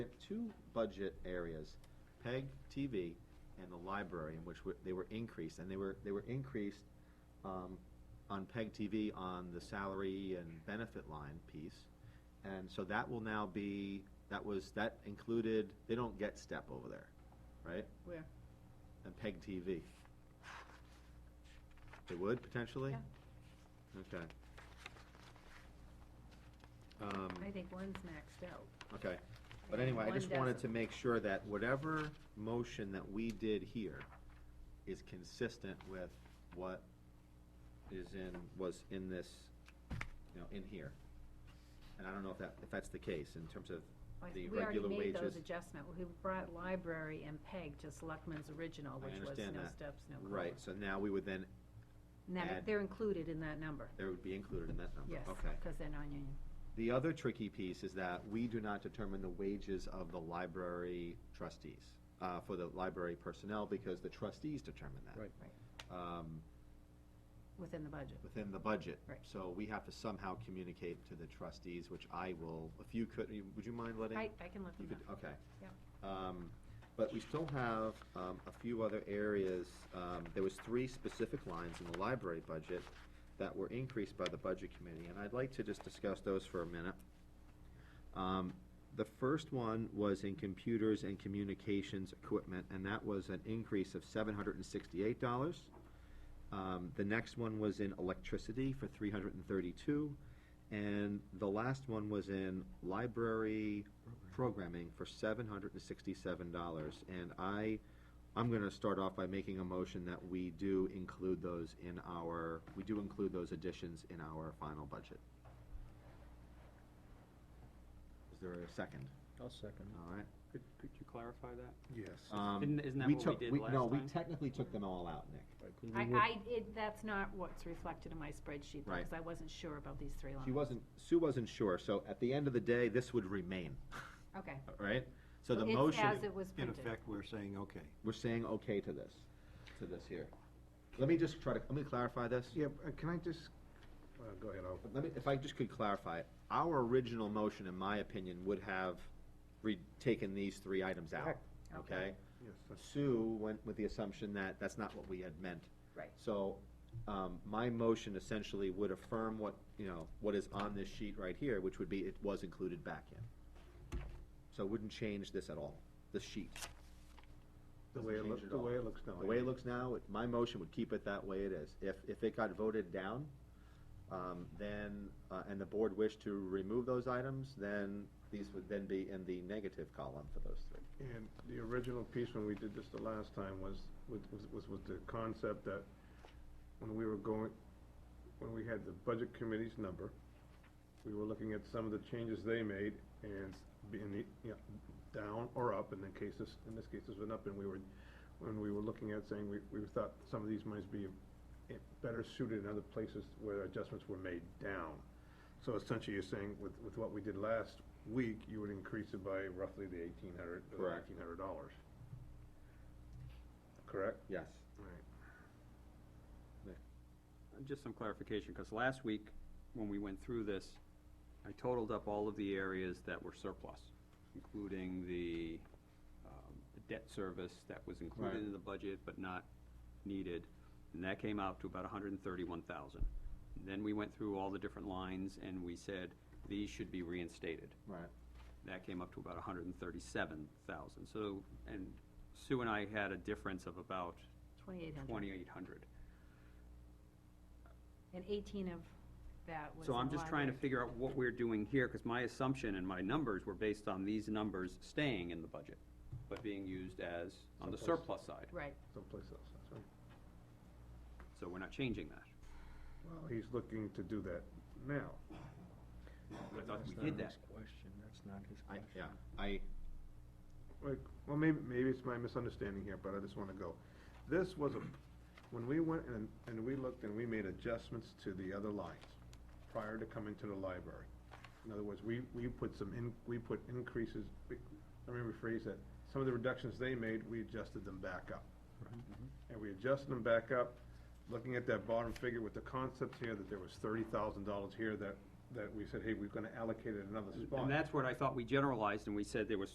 We have two budget areas, PEG TV and the library, in which were- they were increased, and they were, they were increased um, on PEG TV on the salary and benefit line piece. And so that will now be, that was, that included, they don't get step over there, right? Where? And PEG TV. They would potentially? Okay. Um, I think one's maxed out. Okay, but Yeah, anyway, I one just wanted to doesn't. make sure that whatever motion that we did here is consistent with what is in, was in this, you know, in here. And I don't know if that, if that's the case in terms of I th- the We already regular made those wages. adjustments. We brought library and PEG to Selectmen's original, I which was understand no that. steps, no COLA. Right, so now we would then, And that, add- they're included in that number, there would be included in that number, yes, okay. because they're non-union. The other tricky piece is that we do not determine the wages of the library trustees, uh, for the library personnel, because the trustees determine that. Right. Um, Within the budget. within the budget. Right. So we have to somehow communicate to the trustees, which I will, if you could, you- would you mind letting? I, I can let You them could, know. okay. Um, But we still have um, a few other areas. Um, There was three specific lines in the library budget that were increased by the Budget Committee, and I'd like to just discuss those for a minute. Um, The first one was in computers and communications equipment, and that was an increase of seven hundred and sixty-eight dollars. Um, The next one was in electricity for three hundred and thirty-two, and the last one was in library programming for seven hundred and sixty-seven dollars. And I, I'm gonna start off by making a motion that we do include those in our, we do include those additions in our final budget. Is there a second? I'll second All right. Could, could you clarify that? Yes. Um, Didn't- Mm-hmm. isn't that what we took- did No, last we time? technically took them all out, Nick. I, I, it, that's not what's reflected in my spreadsheet, Right. because I wasn't sure about these three lines. She wasn't, Sue wasn't sure, so at the end of the day, this would remain, Okay. all right? So the It's motion, As it was In printed. effect, we're saying, okay. we're saying okay to this, to this here. Let me just try to, let me clarify this. Yeah, uh, can I just, uh, go ahead, I'll, But Let me, if I just could clarify, it. our original motion, in my opinion, would have re, taken these three items out, Correct. okay? yes, that's- Sue went with the assumption that that's not what we had meant. Right. So, um, my motion essentially would affirm what, you know, what is on this sheet right here, which would be it was included back in. So it wouldn't change this at all, the sheet. the Doesn't way it change looks, at the all. way it looks now. The way it looks now, it- my motion would keep it that way it is. If, if it got voted down, um, then, uh, and the board wished to remove those items, then these would then be in the negative column for those three. And the original piece when we did this the last time was, was, was- was, was the concept that when we were going, when we had the budget committee's number, we were looking at some of the changes they made and being, the- you know, down or up, and in cases, in this case, it's been up, and we were, when we were looking at saying, we, we thought some of these might be eh, better suited in other places where adjustments were made down. So essentially, you're saying with, with what we did last week, you would increase it by roughly the eighteen hundred, Correct. eighteen hundred dollars. Correct? Yes. Right. Uh, Just some clarification, because last week, when we went through this, I totaled up all of the areas that were surplus, including the um, the debt service that was Right. included in the budget but not needed, and that came out to about hundred and thirty-one thousand. Then we went through all the different lines and we said, these should be reinstated. Right. That came up to about hundred and thirty-seven thousand, so, and Sue and I had a difference of about Twenty-eight hundred. twenty-eight hundred. And eighteen of that was So I'm in just trying to library. figure out what we're doing here, because my assumption and my numbers were based on these numbers staying in the budget, but being used as, on the Someplace. surplus side. Right. Someplace else, that's right. So we're not changing that. Well, he's looking to do that now. I thought we did that. Question, that's not his I, question. yeah, I, Like, well, maybe, maybe it's my misunderstanding here, but I just wanna go. This was a, when we went and, and we looked and we made adjustments to the other lines prior to coming to the library. In other words, we, we put some in, we put increases, we- let me rephrase that, some of the reductions they made, we adjusted them back up. And we adjusted them back up, looking at that bottom figure with the concepts here, that there was thirty thousand dollars here that, that we said, hey, we're gonna allocate it another spot. And that's what I thought we generalized, and we said there was